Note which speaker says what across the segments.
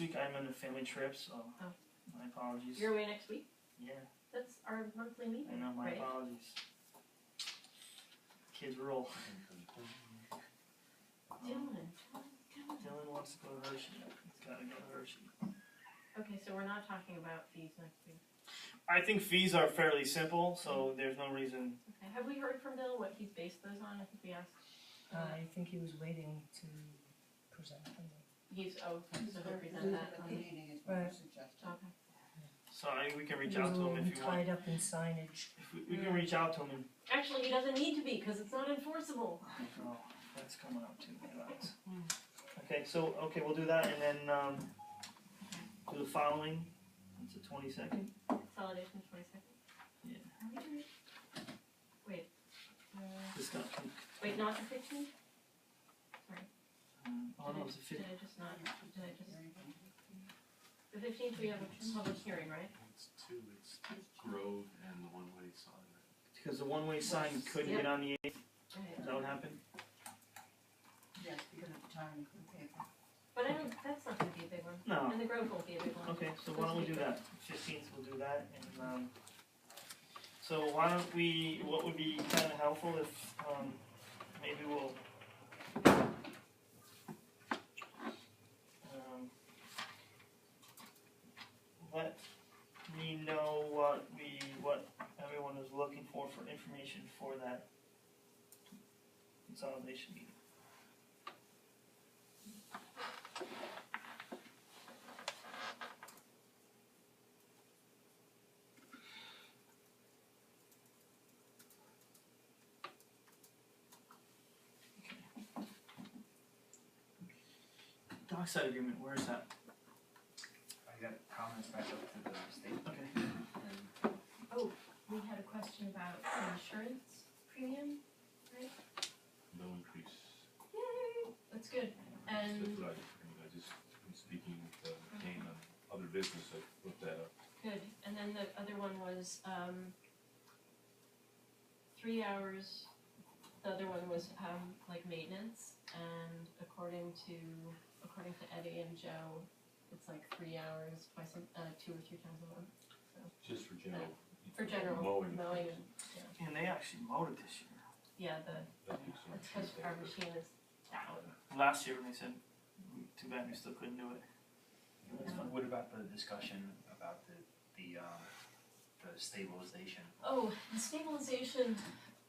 Speaker 1: week I'm on a family trip, so
Speaker 2: Oh.
Speaker 1: my apologies.
Speaker 2: You're away next week?
Speaker 1: yeah,
Speaker 2: That's our monthly
Speaker 1: I
Speaker 2: meeting,
Speaker 1: know, my
Speaker 2: right?
Speaker 1: apologies. Kids rule. Um,
Speaker 2: Dylan, Dylan, Dylan.
Speaker 1: Dylan wants to go to Hershey. He's gotta go to Hershey.
Speaker 2: Okay, so we're not talking about fees next week.
Speaker 1: I think fees are fairly simple,
Speaker 2: Mm.
Speaker 1: so there's no reason.
Speaker 2: Okay, have we heard from Bill what he's based those on? I think we asked. Uh,
Speaker 3: I think he was waiting to present them.
Speaker 2: He's, oh, so he'll present that
Speaker 4: At
Speaker 2: on
Speaker 4: the
Speaker 2: the,
Speaker 4: meeting is what you
Speaker 3: Right.
Speaker 4: suggested.
Speaker 2: okay.
Speaker 1: So I, we can reach
Speaker 3: He was
Speaker 1: out to
Speaker 3: a
Speaker 1: him
Speaker 3: little
Speaker 1: if you want.
Speaker 3: Tied up in signage.
Speaker 1: If we, we can reach out to him and.
Speaker 2: Actually, he doesn't need to be, cause it's not enforceable.
Speaker 1: Oh, that's coming up too, my lines.
Speaker 2: Mm.
Speaker 1: Okay, so, okay, we'll do that and then, um, do the following, it's the twenty-second.
Speaker 2: Consolidation twenty-second?
Speaker 1: Yeah.
Speaker 2: Are we doing it? Wait, uh,
Speaker 1: Discussion,
Speaker 2: wait, not the fifteenth?
Speaker 1: um, oh no, it's the fifth,
Speaker 2: Did I just not, did I just, the fifteenth, we have a public hearing, right?
Speaker 5: It's two, it's Grove and the one-way sign.
Speaker 1: because the one-way sign couldn't get on the eighth,
Speaker 2: Okay.
Speaker 1: is that what happened?
Speaker 4: Yes, because of the time and the paper.
Speaker 2: But I don't, that's not gonna be a big one,
Speaker 1: No,
Speaker 2: and the Grove won't be a big one.
Speaker 1: okay, so why don't we do that, fifteenth, we'll do that and, um, so why don't we, what would be kinda helpful if, um, maybe we'll. Um. Let me know what we, what everyone is looking for, for information for that consolidation meeting. Dockside agreement, where is that?
Speaker 6: I got comments back up to the state
Speaker 1: Okay.
Speaker 6: and
Speaker 2: Um, oh, We had a question about the insurance premium,
Speaker 5: No increase.
Speaker 2: yay, that's good,
Speaker 5: That's
Speaker 2: and,
Speaker 5: what I, I mean, I just, been speaking with, uh, Kane on other business, I looked that up.
Speaker 2: good, and then the other one was, um, three hours, the other one was, um, like maintenance, and according to, according to Eddie and Joe, it's like three hours twice, a- uh, two or three times a month,
Speaker 5: Just for general.
Speaker 2: For general,
Speaker 5: Mowing.
Speaker 2: mowing and-
Speaker 1: And they actually mowed it this year.
Speaker 2: yeah, the,
Speaker 5: That keeps on
Speaker 2: that's because our
Speaker 5: Tuesday,
Speaker 2: machine is down.
Speaker 1: Last year when they said, too bad we still couldn't do it. That's fine.
Speaker 6: what about the discussion about the, the, um, the stabilization?
Speaker 2: Oh, the stabilization,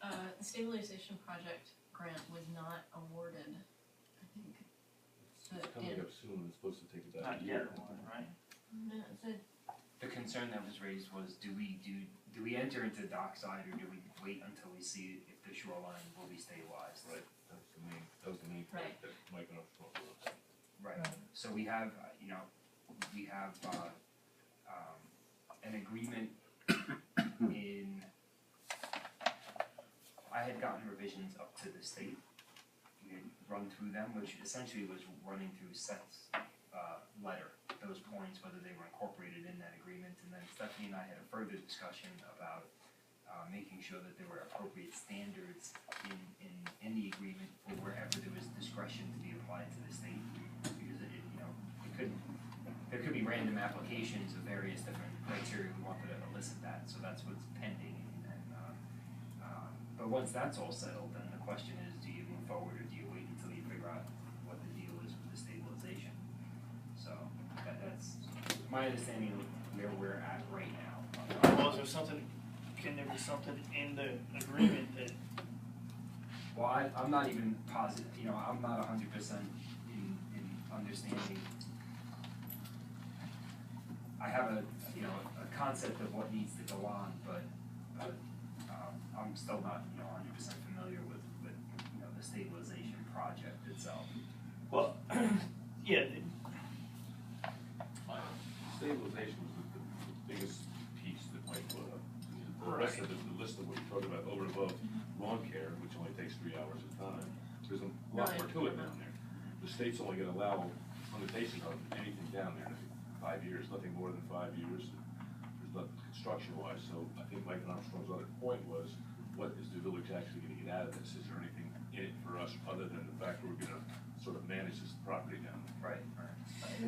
Speaker 2: uh, the stabilization project grant was not awarded, I think.
Speaker 5: but It's coming up soon, it's supposed to take about
Speaker 1: Not
Speaker 5: a
Speaker 1: yet,
Speaker 5: year.
Speaker 1: right?
Speaker 2: No, the-
Speaker 6: The concern that was raised was, do we do, do we enter into dockside or do we wait until we see if the shoreline will be stabilized?
Speaker 5: Right, that was the main, that was the main point
Speaker 2: Right.
Speaker 5: that Mike and I were talking about.
Speaker 6: Right, so we have, uh, you know, we have, uh, um, an agreement in, I had gotten revisions up to the state. We had run through them, which essentially was running through Seth's, uh, letter, those points, whether they were incorporated in that agreement. And then Stephanie and I had a further discussion about, uh, making sure that there were appropriate standards in, in, in the agreement for wherever there was discretion to be applied to the state because it, you know, it could, there could be random applications of various different criteria, we wanted to elicit that, so that's what's pending, and, um, um, but once that's all settled, then the question is, do you move forward or do you wait until you figure out what the deal is with the stabilization? So, that, that's my understanding of where we're at right now.
Speaker 1: Well, is there something, can there be something in the agreement that,
Speaker 6: Well, I, I'm not even positive, you know, I'm not hundred percent in, in understanding. I have a, you know, a concept of what needs to go on, but, but, um, I'm still not, you know, hundred percent familiar with, with, you know, the stabilization project itself.
Speaker 1: well, yeah, the-
Speaker 5: My Stabilization was the, the biggest piece that Mike put up. The rest of it, the list of what you talked about over and above lawn care, which only takes three hours at a time, there's a lot more to it down there. The state's only gonna allow limitation on anything down there, five years, nothing more than five years. There's nothing construction wise, so I think Mike Armstrong's other point was, what is the village actually gonna get out of this? Is there anything in it for us other than the fact that we're gonna sort of manage this property down there?
Speaker 6: Right, right.